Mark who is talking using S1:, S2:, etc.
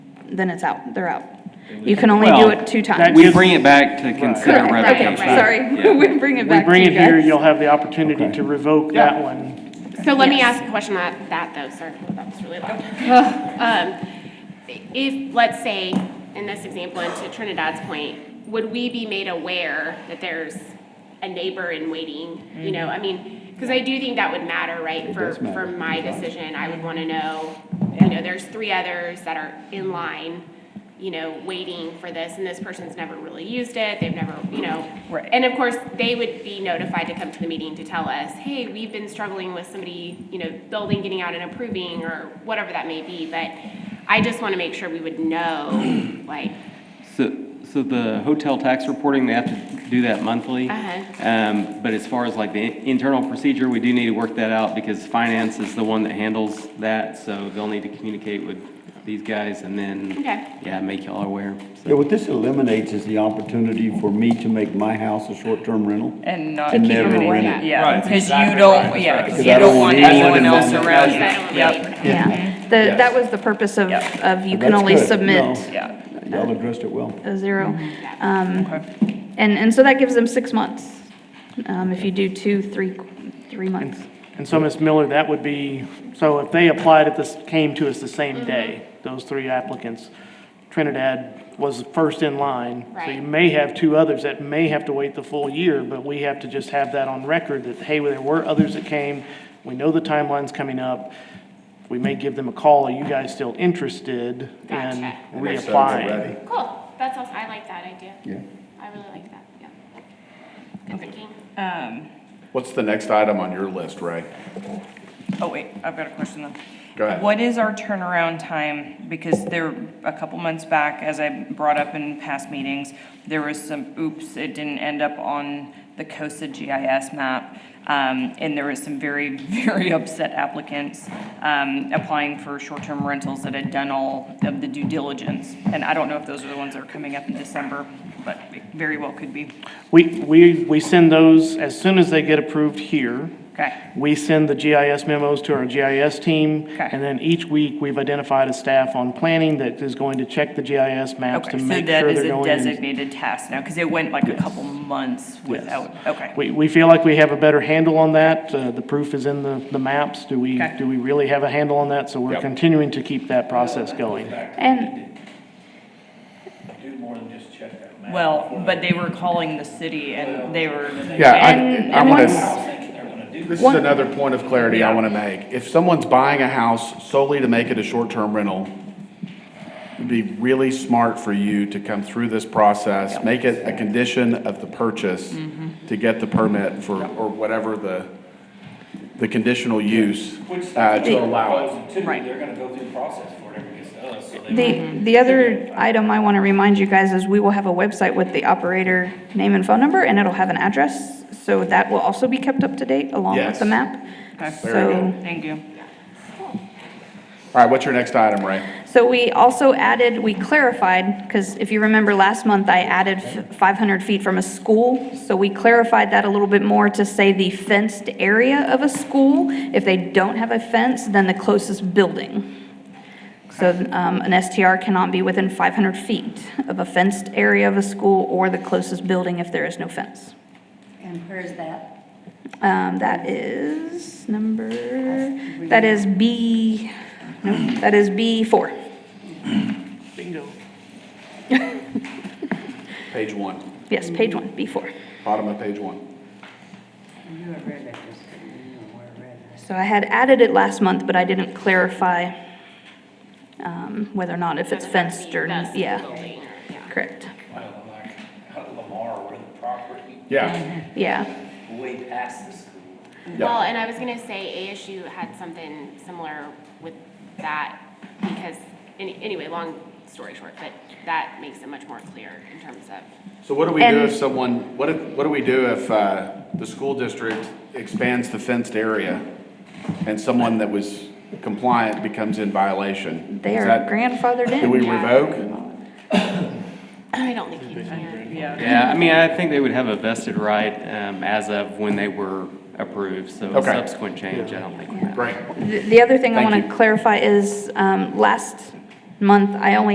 S1: then it's out, they're out. You can only do
S2: Well,
S1: it two
S2: that-
S1: times.
S2: We
S1: Correct,
S2: just-
S3: bring it back to consider
S2: Correct,
S1: okay,
S3: revocation.
S1: sorry, we bring it
S2: We
S1: back to
S2: bring
S1: you
S2: it here,
S1: guys.
S2: you'll have the opportunity to revoke
S3: Yeah.
S2: that one.
S4: So let me
S1: Yes.
S4: ask a question on that, though, sir. Oh, That was really loud. Um, If, let's say, in this example, and to Trinidad's point, would we be made aware that there's a neighbor in waiting? You know, I mean, because I do think that would matter, right? For, for my decision, I would want to know, you know, there's three others that are in line, you know, waiting for this, and this person's never really used it, they've never, you know.
S1: Right.
S4: And of course, they would be notified to come to the meeting to tell us, hey, we've been struggling with somebody, you know, building, getting out and approving, or whatever that may be, but I just want to make sure we would know, like,
S3: So, so the hotel tax reporting, they have to do that monthly.
S4: Uh-huh.
S3: Um, but as far as like the internal procedure, we do need to work that out because finance is the one that handles that. So they'll need to communicate with these guys and then,
S4: Okay.
S3: yeah, make y'all aware. So-
S5: Yeah, what this eliminates is the opportunity for me to make my house a short-term rental.
S6: And not.
S5: To keep
S6: them
S5: them away.
S6: Yeah,
S7: Right,
S6: because you
S7: exactly
S6: don't,
S7: right,
S6: yeah,
S7: right.
S6: 'cause
S5: 'Cause
S6: you
S5: I
S6: don't
S5: don't
S6: want
S5: want
S6: anyone
S5: anyone
S6: else
S5: to-
S6: around you.
S4: Yeah.
S6: Yep,
S1: Yeah, the, that was the purpose of,
S6: Yeah.
S1: of you can
S5: That's
S1: only
S5: good.
S1: submit
S5: No.
S6: yeah.
S5: Y'all addressed it well.
S1: a zero. Um, And, and so that gives them six months, um, if you do two, three, three months.
S2: And so, Ms. Miller, that would be, so if they applied at this, came to us the
S1: Mm-hmm.
S2: same day, those three applicants, Trinidad was first in line. So you
S4: Right.
S2: may have two others that may have to wait the full year, but we have to just have that on record that, hey, there were others that came. We know the timeline's coming up. We may give them a call. Are you guys still interested in
S4: Gotcha.
S2: reapplying?
S4: cool, that's awesome, I like that idea.
S5: Yeah.
S4: I really like that, yeah. Good thinking.
S6: Um,
S7: What's the next item on your list, Ray?
S6: Oh, wait, I've got a question though.
S7: Go ahead.
S6: What is our turnaround time? Because there, a couple months back, as I brought up in past meetings, there was some, oops, it didn't end up on the COSA GIS map. Um, and there was some very, very upset applicants, um, applying for short-term rentals that had done all of the due diligence. And I don't know if those are the ones that are coming up in December, but it very well could be.
S2: We, we, we send those as soon as they get approved here.
S6: Okay.
S2: We send the GIS memos to our GIS team.
S6: Okay.
S2: And then each week, we've identified a staff on planning that is going to check the GIS maps to
S6: Okay, so
S2: make
S6: that
S2: sure
S6: is
S2: they're
S6: a
S2: going. in.
S6: designated task now, because it went like a couple months without, okay.
S2: We, we feel like we have a better handle on that. Uh, the proof is in the, the maps. Do we,
S6: Okay.
S2: do we really have a handle on that? So we're
S7: Yep.
S2: continuing to keep that process going.
S1: And,
S8: do more than just check that map.
S6: Well, but they were calling the city and they were,
S7: Yeah,
S1: And-
S7: I, I
S1: and
S7: want
S1: once-
S7: to,
S8: Thinking they're gonna do
S7: this is another point of clarity I want to make. If someone's buying a house solely to make it a short-term rental, it'd be really smart for you to come through this process, make it a condition of the purchase to get the permit for, or whatever the, the conditional use, uh, to allow it.
S8: Proposing too,
S6: Right.
S8: they're gonna go through the process before it ever gets to us, so they.
S1: the, the other item I want to remind you guys is we will have a website with the operator name and phone number, and it'll have an address, so that will also be kept up to date along with
S7: Yes.
S1: the map.
S7: Very
S1: So-
S7: good.
S6: thank you.
S7: All right, what's your next item, Ray?
S1: So we also added, we clarified, because if you remember last month, I added f- 500 feet from a school. So we clarified that a little bit more to say the fenced area of a school. If they don't have a fence, then the closest building. So um, an STR cannot be within 500 feet of a fenced area of a school or the closest building if there is no fence.
S9: And where is that?
S1: Um, That is number, that is B, no, that is B4.
S2: Bingo.
S7: Page one,
S1: Yes, page one, B4.
S7: bottom of page one.
S9: You had read that just, you know, where I read that.
S1: So I had added it last month, but I didn't clarify um, whether or not if it's fenced or,
S4: That's the
S1: yeah,
S4: building, or- yeah.
S1: correct.
S8: Well, like, Out of Lamar, where the property,
S7: Yeah,
S1: Yeah,
S8: way past the school.
S7: Yeah.
S4: Well, and I was gonna say ASU had something similar with that, because, any- anyway, long story short, but that makes it much more clear in terms of,
S7: so what do we do
S1: And-
S7: if someone, what, if- what do we do if, uh, the school district expands the fenced area and someone that was compliant becomes in violation?
S1: they
S7: Is
S1: are
S7: that-
S1: grandfathered
S7: Do we
S1: in.
S7: revoke?
S4: I don't think you can.
S3: Yeah, I mean, I think they would have a vested right, um, as of when they were approved. So a
S7: Okay.
S3: subsequent change, I don't think would matter.
S7: Great.
S1: The the other thing I
S7: Thank
S1: want
S7: you.
S1: to clarify is, um, last month, I only